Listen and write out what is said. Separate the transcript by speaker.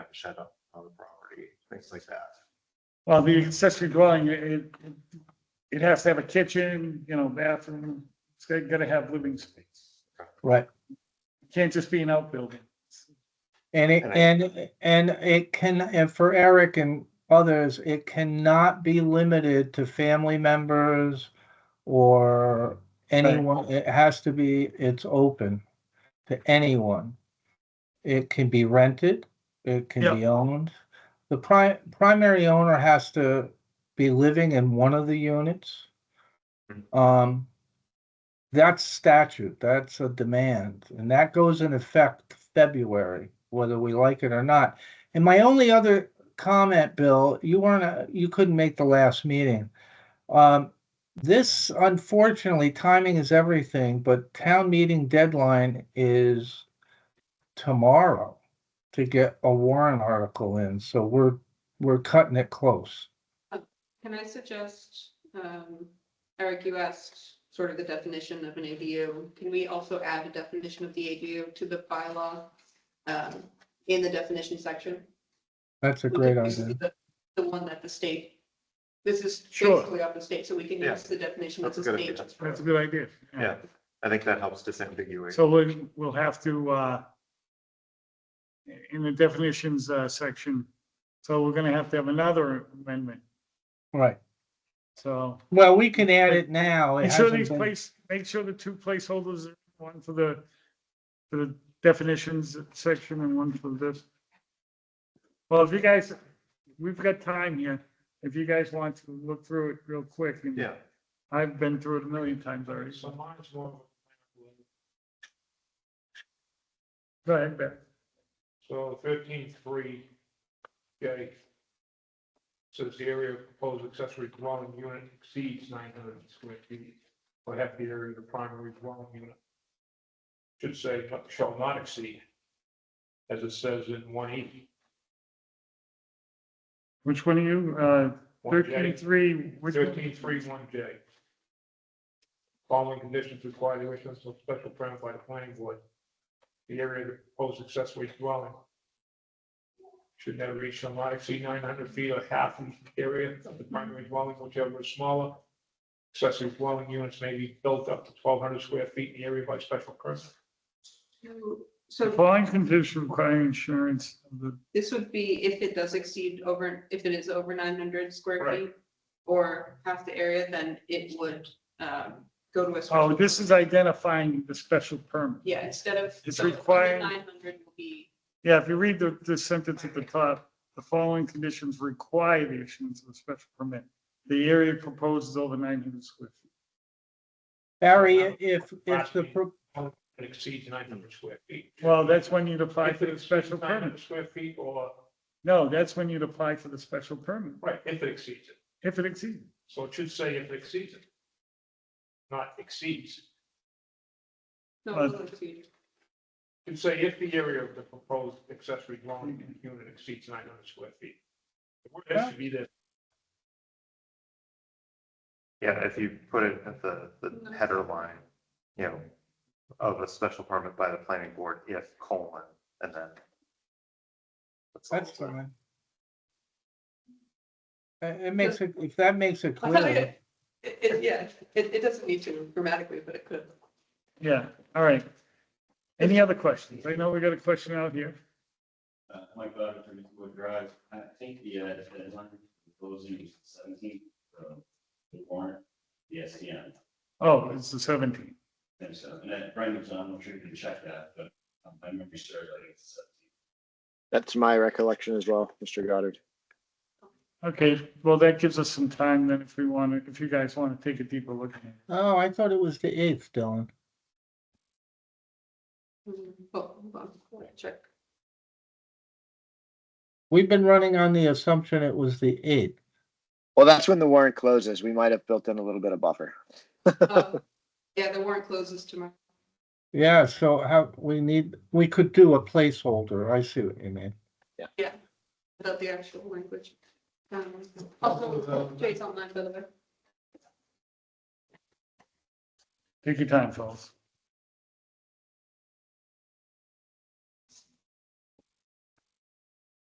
Speaker 1: have a shed up on the property, things like that.
Speaker 2: Well, the accessory dwelling, it, it- it has to have a kitchen, you know, bathroom, it's got- gotta have living space.
Speaker 3: Right.
Speaker 2: It Can't just be an outbuilding.
Speaker 3: And it,
Speaker 1: And I-
Speaker 3: and, and it can, and for Eric and others, it cannot be limited to family members or anyone, it has to be, it's open to anyone. It can be rented, it can be owned. The pri- primary owner has to be living in one of the units. Um, that's statute, that's a demand, and that goes in effect February, whether we like it or not. And my only other comment, Bill, you weren't, uh, you couldn't make the last meeting. Um, this, unfortunately, timing is everything, but town meeting deadline is tomorrow to get a warrant article in, so we're, we're cutting it close.
Speaker 4: Can I suggest, um, Eric, you asked sort of the definition of an ADU. Can we also add a definition of the ADU to the bylaw? Um, in the definition section?
Speaker 3: That's a
Speaker 4: We
Speaker 3: great
Speaker 4: could use
Speaker 3: idea.
Speaker 4: the- The one that the state, this is
Speaker 2: Sure.
Speaker 4: basically off the state, so we can
Speaker 1: Yeah.
Speaker 4: use the definition that
Speaker 1: That's a
Speaker 4: the
Speaker 1: good
Speaker 4: state.
Speaker 1: idea.
Speaker 2: That's a good idea.
Speaker 1: Yeah, I think that helps disambiguate.
Speaker 2: So we, we'll have to, uh, in the definitions, uh, section, so we're gonna have to have another amendment,
Speaker 3: Right.
Speaker 2: so.
Speaker 3: Well, we can add it now. It
Speaker 2: Make sure
Speaker 3: hasn't
Speaker 2: these
Speaker 3: been-
Speaker 2: place, make sure the two placeholders, are one for the, for the definitions section and one for this. Well, if you guys, we've got time here. If you guys want to look through it real quick. and
Speaker 1: Yeah,
Speaker 2: I've been through it a million times already. So
Speaker 5: mine's more, of a-
Speaker 2: go ahead, Ben.
Speaker 5: so thirteen three, J. Says the area of proposed accessory dwelling unit exceeds nine hundred square feet, or half the area of the primary dwelling unit. Should say, not- shall not exceed, as it says in one E,
Speaker 2: Which one are you? Uh,
Speaker 5: one
Speaker 2: thirteen
Speaker 5: J,
Speaker 2: three? which one?
Speaker 5: thirteen three, one J. Following conditions require the issuance of special permit by the planning board. The area of the proposed accessory dwelling should never reach shall not exceed nine hundred feet or half the area of the primary dwelling, whichever is smaller. Accessory dwelling units may be built up to twelve hundred square feet in the area by special permit.
Speaker 4: So-
Speaker 2: The
Speaker 4: So
Speaker 2: following condition requiring insurance of the,
Speaker 4: this would be if it does exceed over, if it is over nine hundred square
Speaker 5: Right.
Speaker 4: feet or half the area, then it would, um, go to a.
Speaker 2: oh,
Speaker 4: special
Speaker 2: this
Speaker 4: permit.
Speaker 2: is identifying the special permit.
Speaker 4: Yeah, instead of.
Speaker 2: It's requiring-
Speaker 4: Nine hundred will be,
Speaker 2: Yeah, if you read the, the sentence at the top, the following conditions require the issuance of a special permit. The area proposed is over nine hundred square feet.
Speaker 3: Barry, if, if
Speaker 5: Last
Speaker 3: the,
Speaker 5: meeting.
Speaker 3: pro-
Speaker 5: It exceeds nine hundred square feet.
Speaker 2: Well, that's when you'd apply
Speaker 5: If
Speaker 2: for
Speaker 5: it
Speaker 2: the special
Speaker 5: exceeds nine
Speaker 2: permit.
Speaker 5: hundred square feet or,
Speaker 2: No, that's when you'd apply for the special permit,
Speaker 5: right, if it exceeds it.
Speaker 2: if it exceeds.
Speaker 5: So it should say if it exceeds it. Not exceeds,
Speaker 4: no,
Speaker 2: But-
Speaker 4: it will exceed.
Speaker 5: it should say if the area of the proposed accessory dwelling unit exceeds nine hundred square feet. The word has to be there,
Speaker 1: yeah, if you put it at the, the header line, you know, of a special permit by the planning board, if colon, and then. all.
Speaker 3: that's fine. It, it makes it, if that makes it clear,
Speaker 4: It, it, yeah, it, it doesn't need to grammatically, but it could.
Speaker 2: Yeah, all right. Any other questions? I know we got a question out here.
Speaker 6: Uh, Mike Bowden, thirty Wood Drive. I think the, uh, the deadline for closing is seventeen, so the warrant, the SDM.
Speaker 2: Oh, it's the seventeen.
Speaker 6: And so, and that Brendan's on, I'm sure you can check that, but um, my memory serves, I think it's seventeen.
Speaker 7: That's my recollection as well, Mr. Goddard.
Speaker 2: Okay, well, that gives us some time then if we want to, if you guys want to take a deeper look. at it.
Speaker 3: oh, I thought it was the eighth, Dylan.
Speaker 4: Mm, Oh, hold on, I wanna check.
Speaker 3: We've been running on the assumption it was the eighth.
Speaker 7: Well, that's when the warrant closes. We might have built in a little bit of buffer.
Speaker 4: Um, Yeah, the warrant closes tomorrow.
Speaker 3: Yeah, so how, we need, we could do a placeholder, I see what you mean.
Speaker 4: without the actual language. Um, Also, Jay's online, by the way.
Speaker 2: Take your time, fellas.